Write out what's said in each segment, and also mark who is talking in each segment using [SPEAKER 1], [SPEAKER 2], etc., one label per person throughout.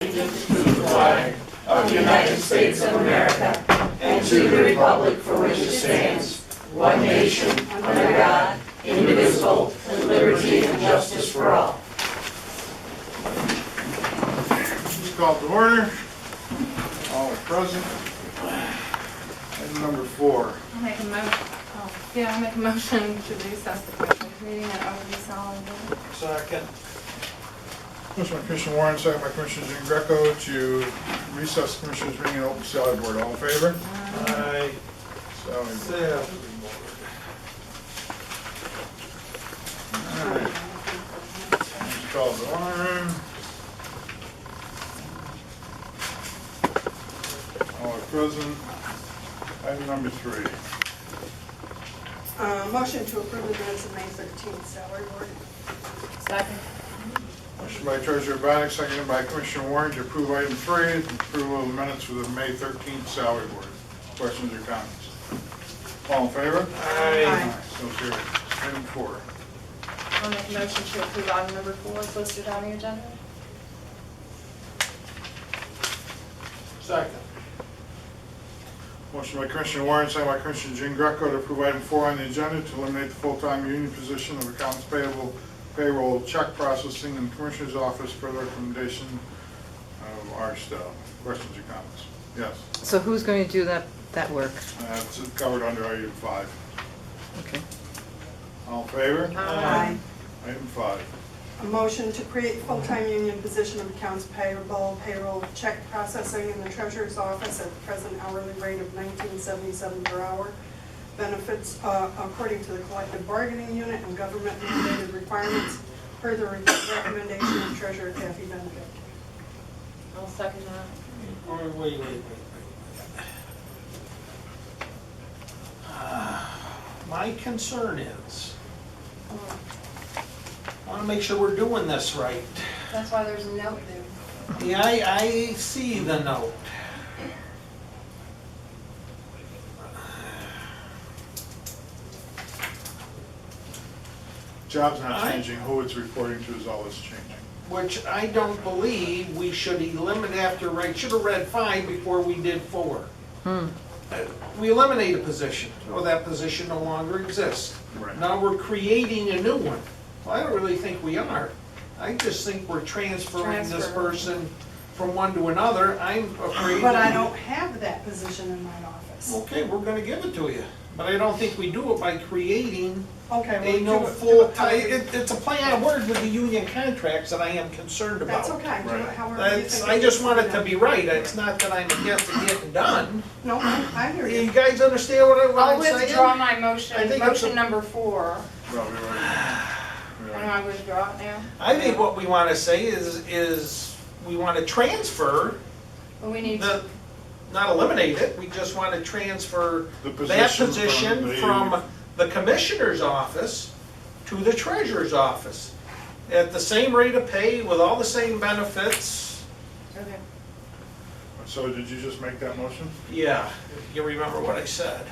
[SPEAKER 1] allegiance to the flag of the United States of America and to the republic for which it stands, one nation, under God, indivisible, with liberty and justice for all.
[SPEAKER 2] Please call to order. All are present. Item number four.
[SPEAKER 3] I'll make a motion, oh, yeah, I'll make a motion to recess the commissioners' meeting at Overview Solid Waste.
[SPEAKER 2] Second. Motion by Commissioner Warren, second by Commissioner Jean Greco to recess the Commissioners' meeting and open salary board. All in favor? Aye. Salary. board. All right. Please call to order. All are present. Item number three.
[SPEAKER 4] Uh, Motion to approve the minutes of May 13th, salary board.
[SPEAKER 3] Second.
[SPEAKER 2] Motion by Treasurer Baddock, seconded by Commissioner Warren to approve item three, approval of the minutes for the May 13th salary board. Questions or comments? All in favor?
[SPEAKER 4] Aye.
[SPEAKER 2] So carried. Item four.
[SPEAKER 3] I'll make a motion to approve item number four as listed on the agenda.
[SPEAKER 2] Second. Motion by Commissioner Warren, seconded by Commissioner Jean Greco to approve item four on the agenda to eliminate the full-time union position of accounts payable payroll check processing in the Commissioner's office for the recommendation of our staff. Questions or comments? Yes,
[SPEAKER 5] So who's going to do that, that work?
[SPEAKER 2] Uh, it's covered under item five.
[SPEAKER 5] Okay.
[SPEAKER 2] All in favor?
[SPEAKER 4] Aye.
[SPEAKER 2] Item five.
[SPEAKER 4] A motion to create full-time union position of accounts payable, payroll, check processing in the treasurer's office at the present hourly rate of 1977 per hour. Benefits uh, according to the collective bargaining unit and government-related requirements, per the recommendation of treasurer Kathy Benedict.
[SPEAKER 3] I'll second that.
[SPEAKER 6] Wait, wait, wait, wait, wait. Ah, My concern is, I want to make sure we're doing this right.
[SPEAKER 3] That's why there's a note there.
[SPEAKER 6] Yeah, I, I see the note.
[SPEAKER 2] Job's not
[SPEAKER 6] Aye.
[SPEAKER 2] changing, who it's reporting to is all that's changing.
[SPEAKER 6] Which I don't believe we should eliminate after, right, should have read five before we did four.
[SPEAKER 4] Hmm.
[SPEAKER 6] Uh, We eliminate a position, or that position no longer exists.
[SPEAKER 2] Right.
[SPEAKER 6] Now we're creating a new one. Well, I don't really think we are. I just think we're transferring this
[SPEAKER 3] Transfer.
[SPEAKER 6] person from one to another. I'm afraid.
[SPEAKER 4] But I don't have that position in my office.
[SPEAKER 6] Okay, we're gonna give it to you, but I don't think we do it by creating
[SPEAKER 4] Okay. well,
[SPEAKER 6] a no
[SPEAKER 4] do it- do
[SPEAKER 6] full
[SPEAKER 4] it how
[SPEAKER 6] time.
[SPEAKER 4] you-
[SPEAKER 6] It, it's a play on words with the union contracts that I am concerned about.
[SPEAKER 4] That's okay, do it
[SPEAKER 2] Right.
[SPEAKER 4] however you
[SPEAKER 6] That's,
[SPEAKER 4] think.
[SPEAKER 6] I just want it to
[SPEAKER 4] is.
[SPEAKER 6] be right, it's not that I'm against it getting done.
[SPEAKER 4] No, I I hear
[SPEAKER 6] You
[SPEAKER 4] you.
[SPEAKER 6] guys understand what I- what
[SPEAKER 3] I'll
[SPEAKER 6] I'm saying?
[SPEAKER 3] withdraw my
[SPEAKER 6] I
[SPEAKER 3] motion,
[SPEAKER 6] think it's
[SPEAKER 3] motion
[SPEAKER 6] a-
[SPEAKER 3] number four.
[SPEAKER 2] Well, we already, we
[SPEAKER 6] Uh,
[SPEAKER 3] And
[SPEAKER 2] already,
[SPEAKER 3] I withdraw it now.
[SPEAKER 6] I think what we wanna say is, is we wanna transfer,
[SPEAKER 3] But we need,
[SPEAKER 6] the,
[SPEAKER 3] to-
[SPEAKER 6] not eliminate it, we just wanna transfer
[SPEAKER 2] The
[SPEAKER 6] that
[SPEAKER 2] position from
[SPEAKER 6] position
[SPEAKER 2] the-
[SPEAKER 6] from the commissioner's office to the treasurer's office. At the same rate of pay, with all the same benefits,
[SPEAKER 3] okay.
[SPEAKER 2] so did you just make that motion?
[SPEAKER 6] yeah, if you remember what I said.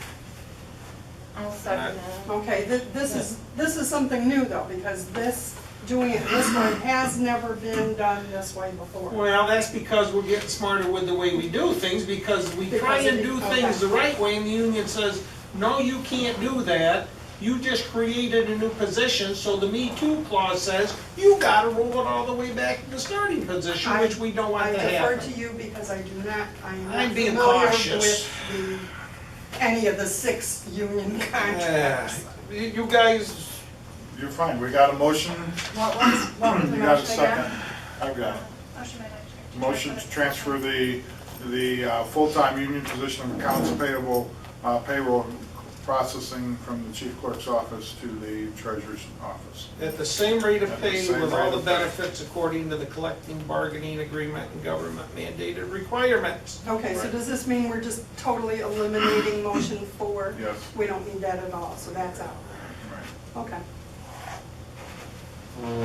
[SPEAKER 3] I'll second
[SPEAKER 2] Uh,
[SPEAKER 3] that.
[SPEAKER 4] Okay, thi- this is, this is something new though, because this, doing it this way has never been done this way before.
[SPEAKER 6] Well, that's because we're getting smarter with the way we do things, because we try
[SPEAKER 4] Because it-
[SPEAKER 6] and do things the right way, and the union says, no, you can't do that. You just created a new position, so the Me Too clause says, you gotta roll it all the way back to the starting position,
[SPEAKER 4] I-
[SPEAKER 6] which we don't
[SPEAKER 4] I
[SPEAKER 6] want to
[SPEAKER 4] defer to
[SPEAKER 6] happen.
[SPEAKER 4] you because I do not, I am not
[SPEAKER 6] I'm being
[SPEAKER 4] familiar
[SPEAKER 6] cautious.
[SPEAKER 4] with the, any of the six union
[SPEAKER 6] Yeah.
[SPEAKER 4] contracts.
[SPEAKER 6] You you guys,
[SPEAKER 2] You're fine, we got a motion,
[SPEAKER 3] What was, what was the
[SPEAKER 2] you got a
[SPEAKER 3] motion
[SPEAKER 2] second?
[SPEAKER 3] again?
[SPEAKER 2] I've got it.
[SPEAKER 3] Motion made by-
[SPEAKER 2] Motion to transfer the, the uh, full-time union position of accounts payable, uh, payroll processing from the chief clerk's office to the treasurer's office.
[SPEAKER 6] at the same rate of
[SPEAKER 2] At the
[SPEAKER 6] pay
[SPEAKER 2] same
[SPEAKER 6] with
[SPEAKER 2] rate
[SPEAKER 6] all the
[SPEAKER 2] of pay.
[SPEAKER 6] benefits according to the collective bargaining agreement and government mandated requirements.
[SPEAKER 4] Okay, so
[SPEAKER 2] Right.
[SPEAKER 4] does this mean we're just totally eliminating motion four?
[SPEAKER 2] Yes.
[SPEAKER 4] We don't need that at all, so that's out.
[SPEAKER 2] Right.
[SPEAKER 4] Okay.
[SPEAKER 3] I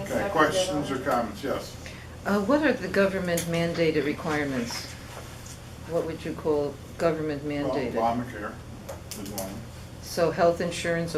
[SPEAKER 2] Okay,
[SPEAKER 3] seconded
[SPEAKER 2] questions or
[SPEAKER 3] it.
[SPEAKER 2] comments? Yes.
[SPEAKER 5] Uh, What are the government mandated requirements? What would you call government
[SPEAKER 2] Well,
[SPEAKER 5] mandated?
[SPEAKER 2] Obamacare is one.
[SPEAKER 5] So health insurance